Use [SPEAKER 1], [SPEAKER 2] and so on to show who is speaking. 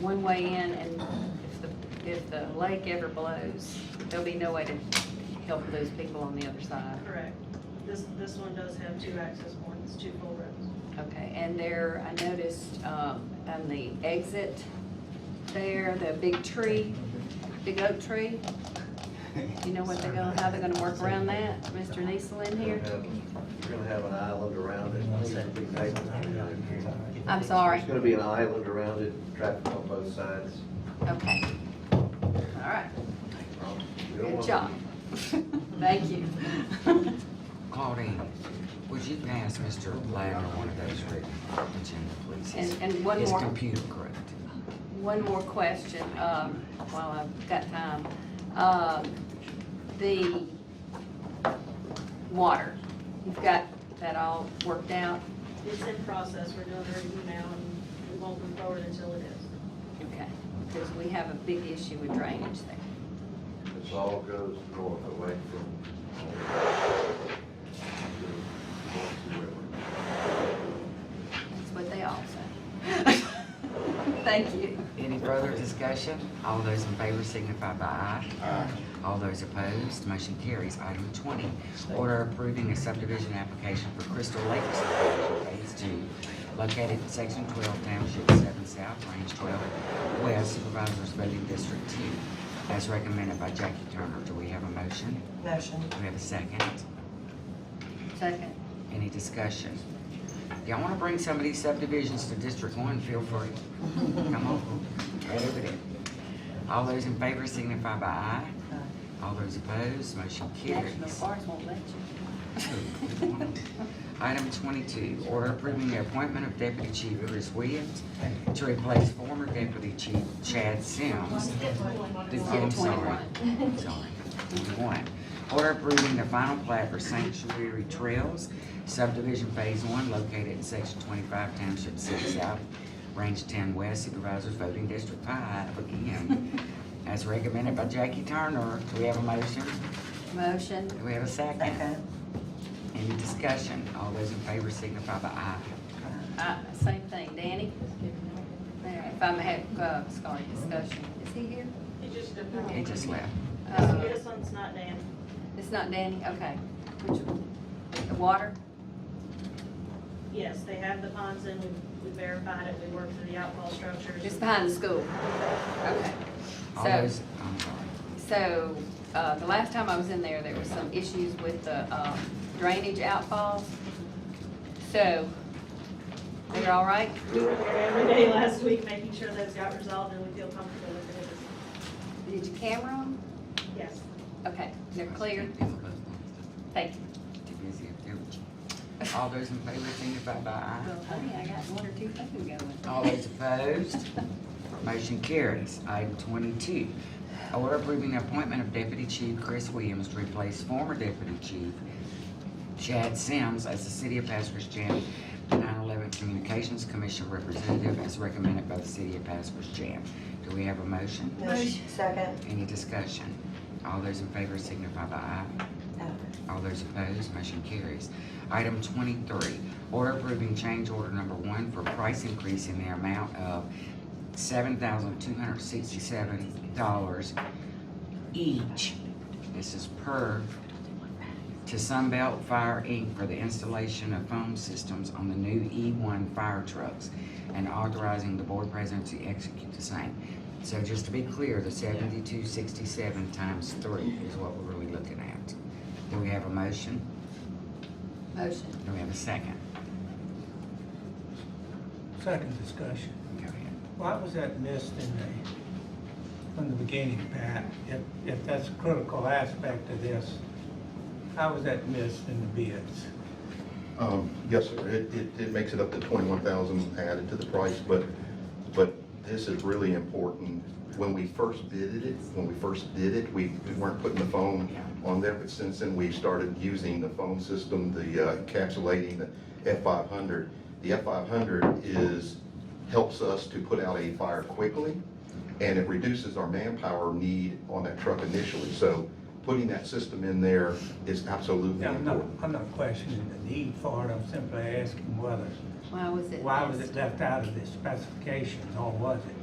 [SPEAKER 1] one way in, and if the, if the lake ever blows, there'll be no way to help those people on the other side.
[SPEAKER 2] Correct. This, this one does have two access points, two full roads.
[SPEAKER 1] Okay, and there, I noticed, um, on the exit there, the big tree, big oak tree, you know what they're gonna, how they're gonna work around that, Mr. Niesel in
[SPEAKER 3] You're
[SPEAKER 1] here?
[SPEAKER 3] gonna have- you're gonna have an island around it, it's gonna be paved.
[SPEAKER 1] I'm sorry,
[SPEAKER 3] There's gonna be an island around it, traffic on both sides.
[SPEAKER 1] okay. All right,
[SPEAKER 3] Um, We don't
[SPEAKER 1] good
[SPEAKER 3] want-
[SPEAKER 1] job. Thank you.
[SPEAKER 4] Claudine, would you pass Mr. Ladner one of those written agenda, please? His-
[SPEAKER 1] And, and one
[SPEAKER 4] His
[SPEAKER 1] more.
[SPEAKER 4] computer correct.
[SPEAKER 1] One more question, um, while I've got time. Um, The water, you've got that all worked out?
[SPEAKER 2] It's in process, we're doing their email, and we won't move forward until it is.
[SPEAKER 1] Okay, because we have a big issue with drainage there.
[SPEAKER 3] This all goes north away from. to the River.
[SPEAKER 1] That's what they all say. Thank you.
[SPEAKER 4] Any further discussion? All those in favor signify by aye. Aye. All those opposed, motion carries. Item twenty, order approving a subdivision application for Crystal Lake subdivision phase two, located in section twelve, township seven south, range twelve, west supervisors voting district two, as recommended by Jackie Turner. Do we have a motion?
[SPEAKER 5] Motion.
[SPEAKER 4] Do we have a second?
[SPEAKER 1] Second.
[SPEAKER 4] Any discussion? Y'all wanna bring some of these subdivisions to District One, feel free. Come on, right over there. All those in favor signify by aye. All those opposed, motion
[SPEAKER 1] National
[SPEAKER 4] carries.
[SPEAKER 1] Forest won't let you.
[SPEAKER 4] Item twenty-two, order approving the appointment of Deputy Chief Chris Williams to replace former Deputy Chief Chad Sims. Do-
[SPEAKER 1] Skip
[SPEAKER 4] I'm sorry.
[SPEAKER 1] 21.
[SPEAKER 4] Sorry. One, order approving the final plat for Sanctuary Trails subdivision phase one located in section twenty-five township six south, range ten west supervisors voting district five again, as recommended by Jackie Turner. Do we have a motion?
[SPEAKER 1] Motion,
[SPEAKER 4] Do we have a second?
[SPEAKER 5] Second.
[SPEAKER 4] Any discussion? All those in favor signify by aye.
[SPEAKER 1] uh, same thing, Danny? There, If I may have, uh, sorry, discussion, is he here?
[SPEAKER 2] He just did
[SPEAKER 4] It just left.
[SPEAKER 1] Uh,
[SPEAKER 2] This one's not Dan.
[SPEAKER 1] It's not Danny, okay. Which one? The water?
[SPEAKER 2] Yes, they have the ponds in, we- we verified it, we worked through the outfall structures.
[SPEAKER 1] It's behind the school. Okay.
[SPEAKER 4] All
[SPEAKER 1] So-
[SPEAKER 4] those, I'm sorry.
[SPEAKER 1] So, uh, the last time I was in there, there was some issues with the, um, drainage outfalls. So, they're all right?
[SPEAKER 2] We were there every day last week, making sure those got resolved, and we feel comfortable with it.
[SPEAKER 1] Did you camera them?
[SPEAKER 2] Yes.
[SPEAKER 1] Okay, they're clear. Thank you.
[SPEAKER 4] Too busy up there with you. All those in favor signify by aye.
[SPEAKER 1] Well, honey, I got one or two things going.
[SPEAKER 4] All those opposed? Motion carries. Item twenty-two, order approving the appointment of Deputy Chief Chris Williams to replace former Deputy Chief Chad Sims as the City of Pascrest 9/11 Communications Commission Representative as recommended by the City of Pascrest Do we have a motion?
[SPEAKER 5] Motion. Second.
[SPEAKER 4] Any discussion? All those in favor signify by aye. All those opposed, motion carries. Item twenty-three, order approving change order number one for price increase in the amount of seven thousand two hundred sixty-seven dollars each. This is per to Sunbelt Fire Inc. for the installation of foam systems on the new E1 fire trucks and authorizing the board president to execute the same. So just to be clear, the seventy-two sixty-seven times three is what we're really looking at. Do we have a motion?
[SPEAKER 1] Motion.
[SPEAKER 4] Do we have a second?
[SPEAKER 6] Second discussion.
[SPEAKER 4] Go ahead.
[SPEAKER 6] Why was that missed in the, from the beginning, Pat? If, if that's a critical aspect of this, how was that missed in the bids?
[SPEAKER 3] uh,
[SPEAKER 7] Um, Yes, sir. It, it, it makes it up to twenty-one thousand added to the price, but, but this is really important. When we first did it, when we first did it, we weren't putting the foam on there, but since then, we've started using the foam system, the uh, encapsulating the F five hundred. The F five hundred is, helps us to put out a fire quickly, and it reduces our manpower need on that truck initially. So putting that system in there is absolutely
[SPEAKER 6] Yeah, I'm not,
[SPEAKER 7] important.
[SPEAKER 6] I'm not questioning the need for it, I'm simply asking whether,
[SPEAKER 1] Why was it?
[SPEAKER 6] why was
[SPEAKER 1] missed?
[SPEAKER 6] it left out of the specifications, or was it?